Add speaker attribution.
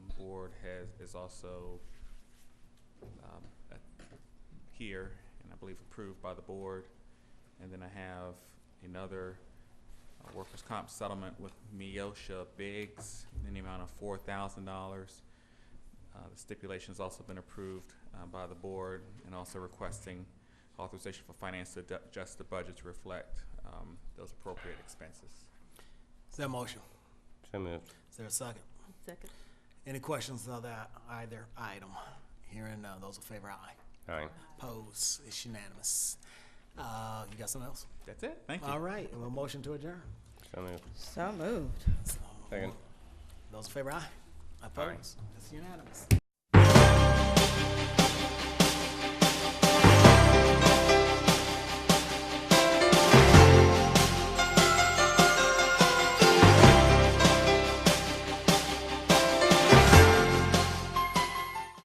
Speaker 1: board has, is also um, uh, here, and I believe approved by the board. And then I have another uh, workers' comp settlement with Miosha Biggs in the amount of four thousand dollars. Uh, The stipulation's also been approved uh, by the board, and also requesting authorization for finance to ad- adjust the budget to reflect um, those appropriate expenses.
Speaker 2: Is there a motion?
Speaker 3: So moved.
Speaker 2: Is there a second?
Speaker 4: Second.
Speaker 2: Any questions on that either item? Hearing none, those in favor, aye.
Speaker 3: All right.
Speaker 2: Pose, it's unanimous. Uh, you got something else?
Speaker 1: That's it, thank you.
Speaker 2: All right, a motion to adjourn.
Speaker 3: So moved.
Speaker 4: So moved.
Speaker 2: So,
Speaker 3: Second.
Speaker 2: Those in favor, aye.
Speaker 3: Aye.
Speaker 2: Opposed? It's unanimous.